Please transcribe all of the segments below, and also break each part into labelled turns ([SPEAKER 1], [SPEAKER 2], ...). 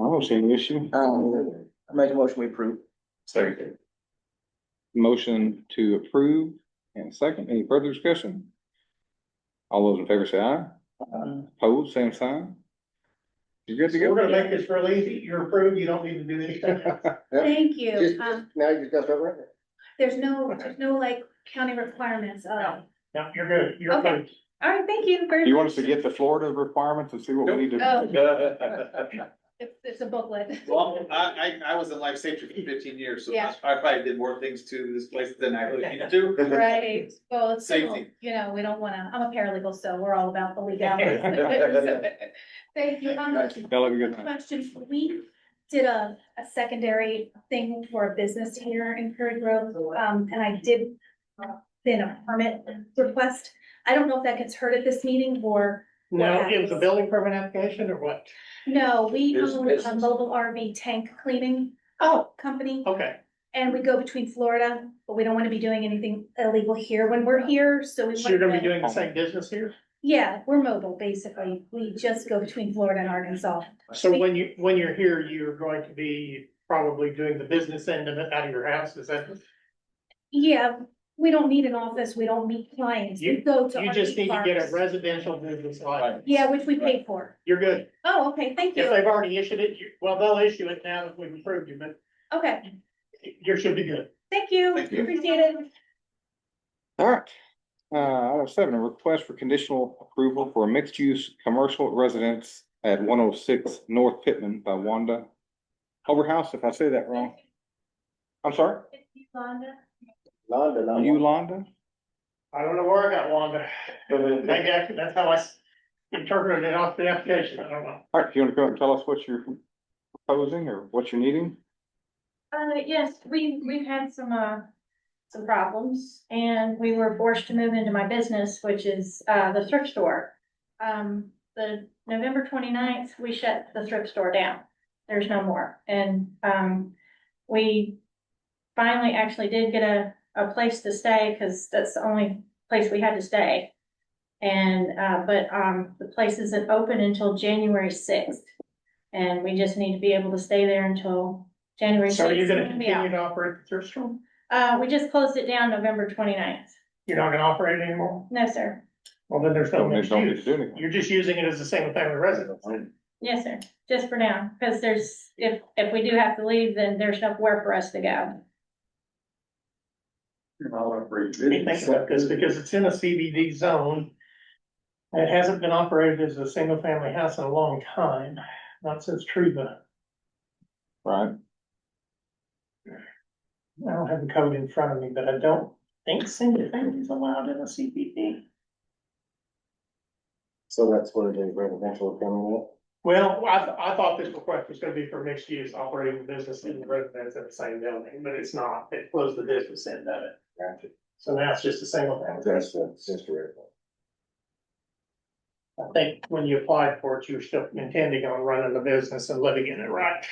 [SPEAKER 1] I don't see any issue.
[SPEAKER 2] Um, I make a motion, we approve.
[SPEAKER 3] Second.
[SPEAKER 1] Motion to approve and second, any further discussion? All those in favor say aye. Opposed, same sign. You good to
[SPEAKER 4] We're
[SPEAKER 1] go?
[SPEAKER 4] gonna make this real easy. You're approved. You don't need to do anything.
[SPEAKER 5] Thank
[SPEAKER 2] Just-
[SPEAKER 5] you. Um,
[SPEAKER 2] Now you just got to run it.
[SPEAKER 5] there's no, there's no like county requirements. Uh,
[SPEAKER 4] No, you're good. You're
[SPEAKER 5] Okay.
[SPEAKER 4] approved.
[SPEAKER 5] all right, thank you very much.
[SPEAKER 1] You want us to get the Florida requirements and see what we need to?
[SPEAKER 5] Oh, it's, it's a booklet.
[SPEAKER 3] Well, I, I, I was in life safety for fifteen years, so I
[SPEAKER 5] Yeah.
[SPEAKER 3] I probably did more things to this place than I really needed to.
[SPEAKER 5] Right, well, it's, civil.
[SPEAKER 3] Safety.
[SPEAKER 5] you know, we don't wanna, I'm a paralegal, so we're all about the legalities. So, Thank you. Um,
[SPEAKER 1] Bella, we good?
[SPEAKER 5] question, we did a, a secondary thing for a business here in Prairie Grove, um, and I did uh, then a permit request. I don't know if that gets heard at this meeting or,
[SPEAKER 4] Now, it was a building permit application or what?
[SPEAKER 5] no, we
[SPEAKER 3] There's
[SPEAKER 5] own a
[SPEAKER 3] business.
[SPEAKER 5] mobile RV tank cleaning
[SPEAKER 4] Oh,
[SPEAKER 5] company.
[SPEAKER 4] okay.
[SPEAKER 5] And we go between Florida, but we don't wanna be doing anything illegal here when we're here, so we.
[SPEAKER 4] So you're gonna
[SPEAKER 5] wanna-
[SPEAKER 4] be doing the same business here?
[SPEAKER 5] Yeah, we're mobile, basically. We just go between Florida and Arkansas.
[SPEAKER 4] So when you, when you're here, you're going to be probably doing the business end of it out of your house, is that?
[SPEAKER 5] Yeah, we don't need an office, we don't meet clients, we
[SPEAKER 4] You-
[SPEAKER 5] go to.
[SPEAKER 4] You just
[SPEAKER 5] RV
[SPEAKER 4] need to get a
[SPEAKER 5] parks.
[SPEAKER 4] residential business license.
[SPEAKER 5] Yeah, which we paid for.
[SPEAKER 4] You're good.
[SPEAKER 5] Oh, okay, thank
[SPEAKER 4] If
[SPEAKER 5] you.
[SPEAKER 4] they've already issued it, you, well, they'll issue it now that we've approved you, but
[SPEAKER 5] Okay,
[SPEAKER 4] you should be good.
[SPEAKER 5] thank you,
[SPEAKER 3] Thank you.
[SPEAKER 5] appreciate it.
[SPEAKER 1] All right. Uh, item seven, a request for conditional approval for a mixed-use commercial residence at one oh six North Pittman by Wanda Overhouse, if I say that wrong. I'm sorry,
[SPEAKER 5] Londa?
[SPEAKER 2] Londa, Londa.
[SPEAKER 1] Yolanda?
[SPEAKER 4] I don't know where I got Wanda. Maybe I, that's how I s- interpreted it off the application, I don't know.
[SPEAKER 1] All right, you want to come up and tell us what you're proposing or what you're needing?
[SPEAKER 6] Uh, yes, we, we've had some, uh, some problems and we were forced to move into my business, which is, uh, the thrift store. Um, the November 29th, we shut the thrift store down. There's no more. And, um, we finally actually did get a, a place to stay because that's the only place we had to stay. And, uh, but, um, the place isn't open until January sixth. And we just need to be able to stay there until January sixth.
[SPEAKER 4] So you're gonna continue to operate the thrift store?
[SPEAKER 6] Uh, we just closed it down November 29th.
[SPEAKER 4] You're not gonna operate it anymore?
[SPEAKER 6] No, sir.
[SPEAKER 4] Well, then there's no
[SPEAKER 1] Don't need
[SPEAKER 4] mixed
[SPEAKER 1] don't need to
[SPEAKER 4] use.
[SPEAKER 1] do anything.
[SPEAKER 4] You're just using it as a single family residence.
[SPEAKER 6] Yes, sir. Just for now, because there's, if, if we do have to leave, then there's nowhere for us to go.
[SPEAKER 4] Let me think about this because it's in a CBD zone. and It hasn't been operated as a single family house in a long time, not since Truva.
[SPEAKER 1] Right,
[SPEAKER 4] I don't have the code in front of me, but I don't think single family is allowed in a CBD.
[SPEAKER 2] So that's what it is, residential coming up.
[SPEAKER 4] Well, I, th- I thought this request was gonna be for mixed use operating the business and the residence at the same building, but it's not. It closed the business end of it.
[SPEAKER 2] Gotcha.
[SPEAKER 4] So now it's just a single family.
[SPEAKER 2] That's the sister.
[SPEAKER 4] I think when you applied for it, you were still intending on running the business and living in it, right?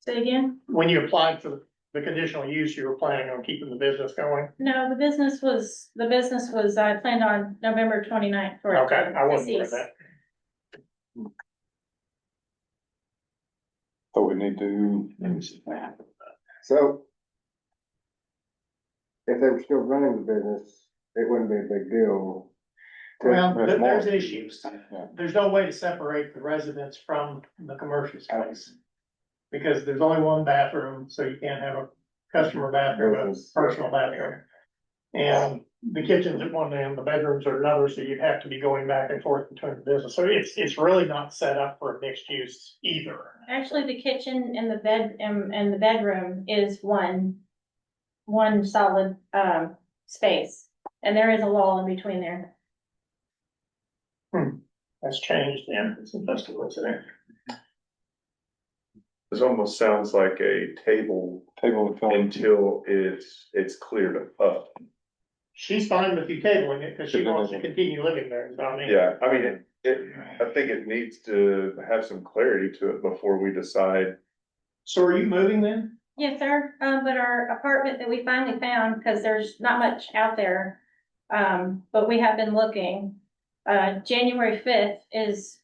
[SPEAKER 6] Say again?
[SPEAKER 4] When you applied for the conditional use, you were planning on keeping the business going?
[SPEAKER 6] No, the business was, the business was, I planned on November 29th for. it.
[SPEAKER 4] Okay, I wasn't aware of
[SPEAKER 6] Deceased.
[SPEAKER 4] that.
[SPEAKER 1] so we need to,
[SPEAKER 2] So. If they were still running the business, it wouldn't be a big deal.
[SPEAKER 4] Well,
[SPEAKER 1] That's
[SPEAKER 4] there- there's
[SPEAKER 1] more.
[SPEAKER 4] issues.
[SPEAKER 1] Yeah.
[SPEAKER 4] There's no way to separate the residence from the commercial space. Because there's only one bathroom, so you can't have a customer bathroom, a personal bathroom. And the kitchen's at one end, the bedrooms are another, so you'd have to be going back and forth between the business. So it's, it's really not set up for mixed use either.
[SPEAKER 6] Actually, the kitchen and the bed, and, and the bedroom is one, one solid, um, space. And there is a wall in between there.
[SPEAKER 4] That's changed then, it's industrial residential.
[SPEAKER 7] This almost sounds like a table
[SPEAKER 1] table the film.
[SPEAKER 7] until it's, it's cleared up.
[SPEAKER 4] She's fine with you tabling it because she
[SPEAKER 1] Because it
[SPEAKER 4] wants to
[SPEAKER 1] isn't-
[SPEAKER 4] continue living there, is what I mean.
[SPEAKER 7] Yeah, I mean, it, it, I think it needs to have some clarity to it before we decide.
[SPEAKER 4] So are you moving then?
[SPEAKER 6] Yes, sir, um, but our apartment that we finally found, because there's not much out there, um, but we have been looking. Uh, January fifth is